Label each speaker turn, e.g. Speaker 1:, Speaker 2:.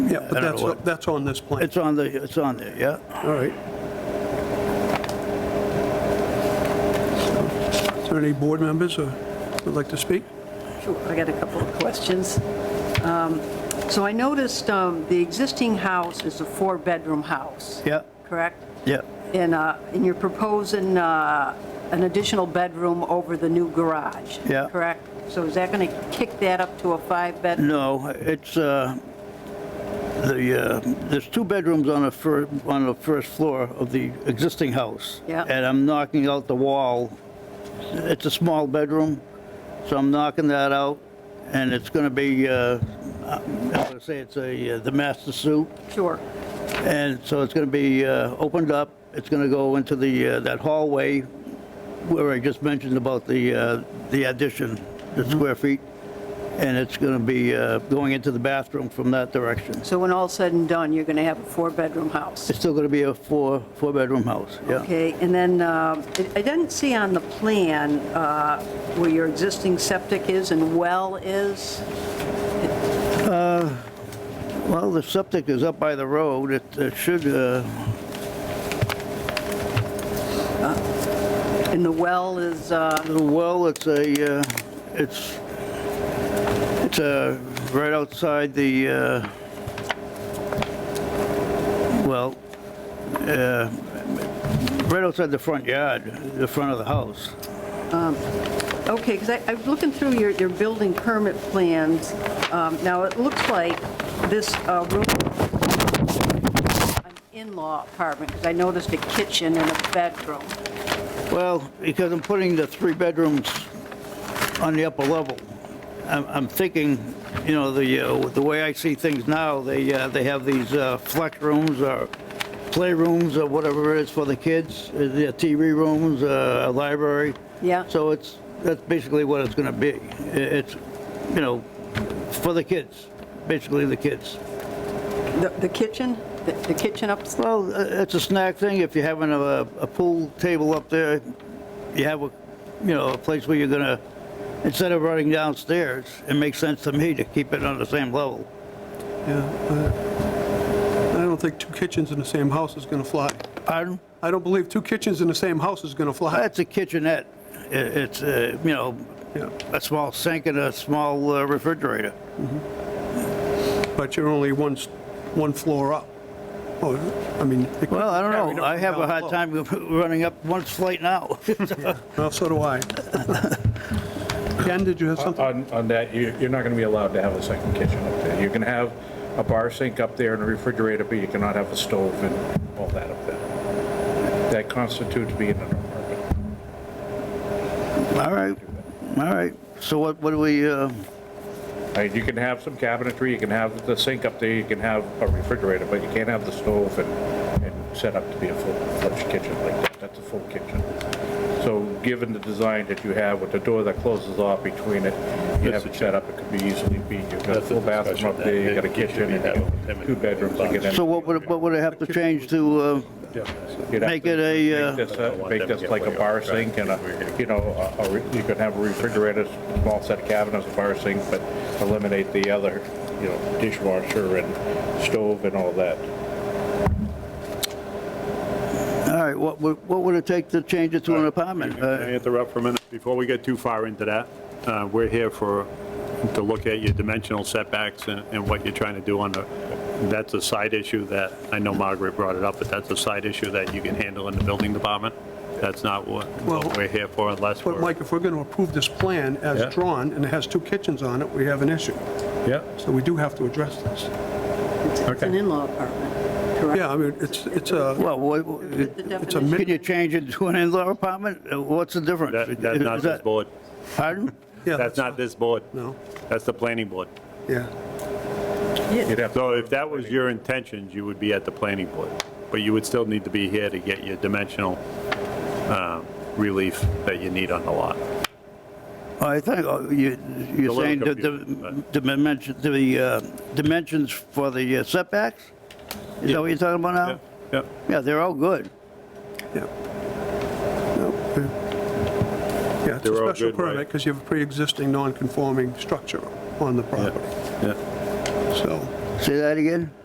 Speaker 1: Yeah,
Speaker 2: I
Speaker 1: but
Speaker 2: don't know
Speaker 1: that's,
Speaker 2: what-
Speaker 1: that's on this plan.
Speaker 2: It's on the, it's on there, yeah.
Speaker 1: All right. Is there any board members who would like to speak?
Speaker 3: Sure, I got a couple of questions. Um, So I noticed um, the existing house is a four-bedroom house.
Speaker 2: Yeah.
Speaker 3: Correct?
Speaker 2: Yeah,
Speaker 3: And, uh, and you're proposing uh, an additional bedroom over the new garage.
Speaker 2: Yeah.
Speaker 3: Correct? So is that going to kick that up to a five-bedroom?
Speaker 2: no, it's, uh, the, uh, there's two bedrooms on the fir, on the first floor of the existing house.
Speaker 3: Yeah.
Speaker 2: And I'm knocking out the wall. It's a small bedroom, so I'm knocking that out, and it's gonna be, uh, I'm gonna say it's a, uh, the master suite.
Speaker 3: Sure.
Speaker 2: And so it's going to be uh, opened up, it's going to go into the, uh, that hallway where I just mentioned about the, uh, the addition, the square feet, and it's going to be uh, going into the bathroom from that direction.
Speaker 3: So when all's said and done, you're going to have a four-bedroom house?
Speaker 2: It's still going to be a four, four-bedroom house, yeah.
Speaker 3: Okay, and then um, I I didn't see on the plan uh, where your existing septic is and well is.
Speaker 2: Well, the septic is up by the road, it it should, uh,
Speaker 3: And the well is, uh,
Speaker 2: the well, it's a, uh, it's, it's uh, right outside the, uh, well, uh, right outside the front yard, the front of the house.
Speaker 3: okay, because I was looking through your, your building permit plans. Um, Now, it looks like this uh, room, an in-law apartment, because I noticed a kitchen and a bedroom.
Speaker 2: Well, because I'm putting the three bedrooms on the upper level, I'm, I'm thinking, you know, the, uh, the way I see things now, they, uh, they have these uh, flex rooms or playrooms or whatever it is for the kids, uh, the TV rooms, uh, a library.
Speaker 3: Yeah.
Speaker 2: So it's, that's basically what it's gonna be. I- It's, you know, for the kids, basically the kids.
Speaker 3: The- The kitchen, the the kitchen upstairs?
Speaker 2: Well, uh, it's a snack thing. If you're having a, a pool table up there, you have a, you know, a place where you're gonna, instead of running downstairs, it makes sense to me to keep it on the same level.
Speaker 1: Yeah. uh, I don't think two kitchens in the same house is going to fly.
Speaker 2: Pardon?
Speaker 1: I don't believe two kitchens in the same house is going to fly.
Speaker 2: That's a kitchenette. I- It's, uh, you know,
Speaker 1: Yeah.
Speaker 2: a small sink and a small uh, refrigerator.
Speaker 1: But you're only one, s- one floor up. Oh, I mean. it could
Speaker 2: Well, I
Speaker 1: be carried
Speaker 2: don't know.
Speaker 1: up
Speaker 2: I
Speaker 1: and
Speaker 2: have a
Speaker 1: down
Speaker 2: hard
Speaker 1: low.
Speaker 2: time running up one flight now.
Speaker 1: Well, so do I. Ken, did you have something?
Speaker 4: On, on that, you, you're not gonna be allowed to have a second kitchen up there. You can have a bar sink up there and a refrigerator, but you cannot have a stove and all that up there. That constitutes being an apartment.
Speaker 2: All right, all right. So what, what do we, uh,
Speaker 4: Uh, You can have some cabinetry, you can have the sink up there, you can have a refrigerator, but you can't have the stove and, and set up to be a full-fledged kitchen like that. That's a full kitchen. So given the design that you have with the door that closes off between it, you have it set up, it could be easily be, you've got a
Speaker 5: That's a
Speaker 4: full bathroom
Speaker 5: discussion
Speaker 4: up there, you
Speaker 5: that
Speaker 4: got a
Speaker 5: you should
Speaker 4: kitchen,
Speaker 5: be
Speaker 4: and
Speaker 5: having with him
Speaker 4: you
Speaker 5: and
Speaker 4: two bedrooms. to get in.
Speaker 2: so what would, what would I have to change to, uh,
Speaker 4: You'd have
Speaker 2: make
Speaker 4: to
Speaker 2: it a, uh,
Speaker 4: Make this, a- make this like a bar sink and a, you know, a- a re- you could have a refrigerator, small set of cabinets, a bar sink, but eliminate the other, you know, dishwasher and stove and all that.
Speaker 2: All right, what would, what would it take to change it to an apartment?
Speaker 5: Can I
Speaker 2: Uh,
Speaker 5: interrupt for a minute? Before we get too far into that, uh, we're here for, to look at your dimensional setbacks and and what you're trying to do on the, that's a side issue that, I know Margaret brought it up, but that's a side issue that you can handle in the building department. That's not what what
Speaker 1: Well-
Speaker 5: we're here for unless
Speaker 1: But
Speaker 5: we're.
Speaker 1: Mike, if we're going to approve this plan
Speaker 5: Yeah.
Speaker 1: as drawn, and it has two kitchens on it, we have an issue.
Speaker 5: Yeah.
Speaker 1: So we do have to address this.
Speaker 3: It's it's an
Speaker 5: Okay.
Speaker 3: in-law apartment, correct?
Speaker 1: Yeah, I mean, it's, it's a,
Speaker 2: Well, what- what-
Speaker 3: The
Speaker 1: it's a,
Speaker 3: definition-
Speaker 2: can
Speaker 1: mid-
Speaker 2: you change it to an in-law apartment? Uh, What's the difference?
Speaker 5: That- That's
Speaker 2: Is
Speaker 5: not this
Speaker 2: that-
Speaker 5: board.
Speaker 2: Pardon?
Speaker 1: yeah,
Speaker 5: That's not this board.
Speaker 1: No.
Speaker 5: That's the planning board.
Speaker 1: yeah.
Speaker 4: You'd have to
Speaker 5: So if that was your intentions, you would be at the planning board, but you would still need to be here to get your dimensional um, relief that you need on the lot.
Speaker 2: I think uh, you, you're
Speaker 5: little
Speaker 2: saying the,
Speaker 5: confusing,
Speaker 2: the dimension, the uh, dimensions for the uh, setbacks? Is that what you're talking about now?
Speaker 5: Yep.
Speaker 2: Yeah, they're all good.
Speaker 1: Yeah. No, yeah. Yeah, it's a
Speaker 5: They're all
Speaker 1: special
Speaker 5: good, right?
Speaker 1: permit because you have a pre-existing non-conforming structure on the property,
Speaker 5: Yeah.
Speaker 1: so.
Speaker 2: Say that again?